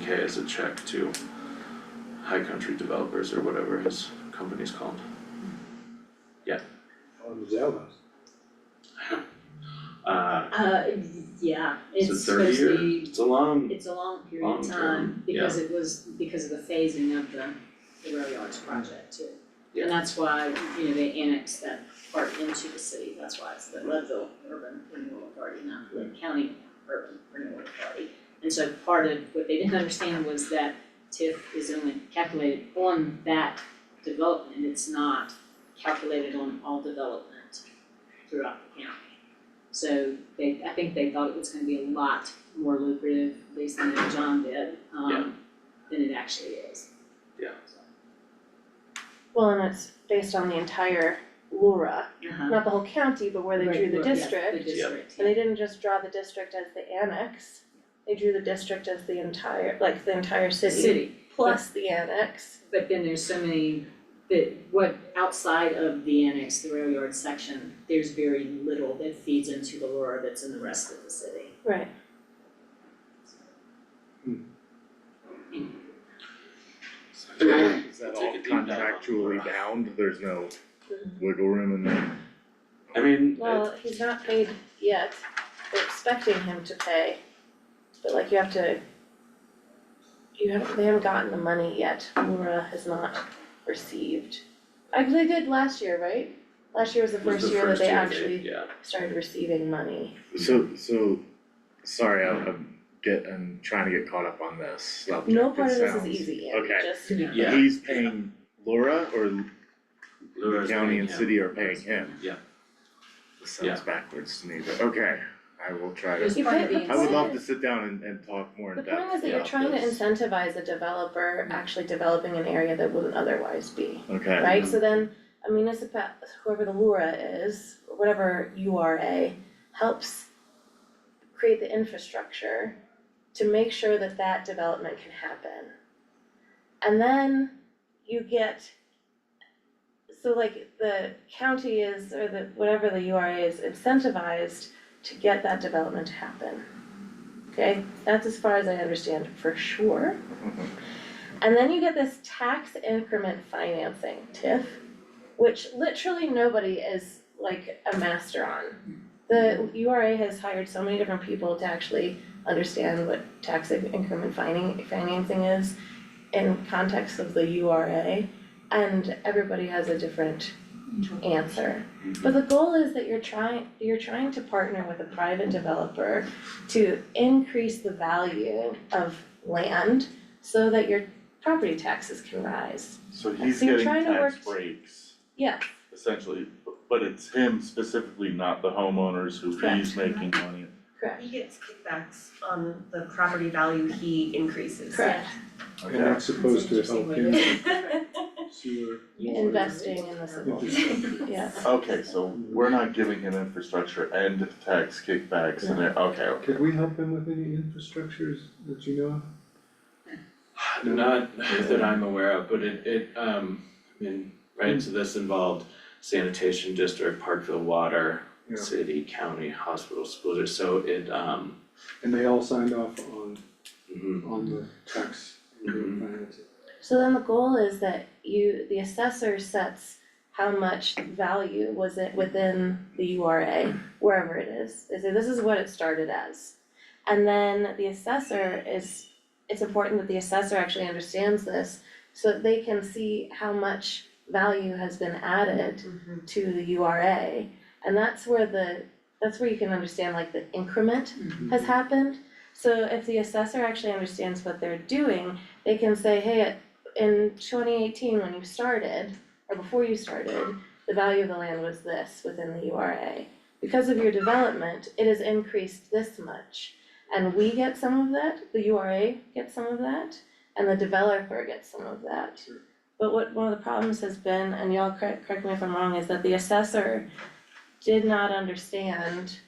K as a check to High Country Developers or whatever his company's called. How was that last? Uh, Uh, yeah, it's a it's thirty supposed year, to be, it's a long, it's a long period Long of term, time, because it was, because of the phasing of the, the rail yards project too. Yeah. And that's why, you know, they annexed that part into the city, that's why it's the Leadville Urban Renewal Authority, not Lynn County Urban Renewal Authority. And so part of what they didn't understand was that TIF is only calculated on that development, it's not calculated on all development throughout the county. So they, I think they thought it was gonna be a lot more lucrative, at least than what John did, Yeah. um, than it actually is. Yeah. Well, and it's based on the entire Lura, Uh-huh. not the whole county, but where they drew the Right, yeah, district. the district, And they didn't just draw the district as the annex, they drew the district as the entire, like the entire The city city, plus the annex. but then there's so many, that what, outside of the annex, the rail yard section, there's very little that feeds into the lure that's in the rest of the city. Right. Is that Take all a deep dive on contractually Laura. bound, there's no wiggle room in there? I mean, it- Well, he's not paid yet, they're expecting him to pay, but like you have to. You haven't, they haven't gotten the money yet, Laura has not received. I, they did last year, right? Last year was the it was first the year that first they year actually yeah, started receiving money. So, so, sorry, I'm, I'm get, I'm trying to get caught up on this subject, No part It of this is sounds- easy, Andy, okay. just, Yeah. Yeah. He's paying Laura or the Laura's county paying and him. city are paying him? Yeah. This Yeah. sounds backwards to me, but okay, I will try There's to, You part could- of the I I would incentive. love to sit down and, and talk more the in point is depth, that you're yeah, Mm. trying to that's- incentivize a developer actually developing an area that wouldn't otherwise be. okay, right? So then a municipal, whoever the LURA is, or whatever URA, helps create the infrastructure to make sure that that development can happen. And then you get, so like the county is, or the, whatever the URA is incentivized to get that development to happen. Okay, that's as far as I understand for sure. Mhm. And then you get this tax increment financing, TIF, which literally nobody is like a master on. The URA has hired so many different people to actually understand what tax increment fining, financing is in context of the URA, and everybody has a different answer. But the goal is that you're trying, you're trying to partner with a private developer to increase the value of land so that your property taxes can rise. So he's So you're getting trying to tax work- breaks Yeah, essentially, bu- but it's him specifically, not the homeowners who he's making money. correct, He gets kickbacks on the property value he increases. correct. And that's supposed to That's an help interesting him Right. see where. Investing in this, yeah. Okay, so we're not giving him infrastructure and tax kickbacks and, it- okay, okay. Could we help him with any infrastructures that you know of? Not that I'm aware of, but it it um, I mean, right, so this involved sanitation district, Parkville Water, Yeah. city, county, hospital, school, district. so it um, And they all signed off on, mhm, on the tax Mm-hmm. and financing. So then the goal is that you, the assessor sets how much value was it within the URA, wherever it is. They say this is what it started as. And then the assessor is, it's important that the assessor actually understands this so that they can see how much value has been added to the URA. And that's where the, that's where you can understand like the increment has happened. So if the assessor actually understands what they're doing, they can say, hey, in twenty eighteen, when you started, or before you started, the value of the land was this within the URA. Because of your development, it has increased this much. And we get some of that, the URA gets some of that, and the developer gets some of that. Sure. But what, one of the problems has been, and y'all correct, correct me if I'm wrong, is that the assessor did not understand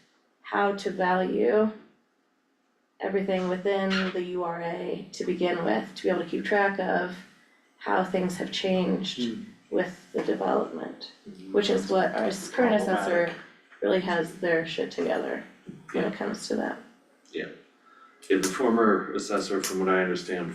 how to value everything within the URA to begin with, to be able to keep track of how things have changed Hmm. with the development, which is what our s- current assessor really has their shit together when it comes to that. Yeah, the former assessor, from what I understand,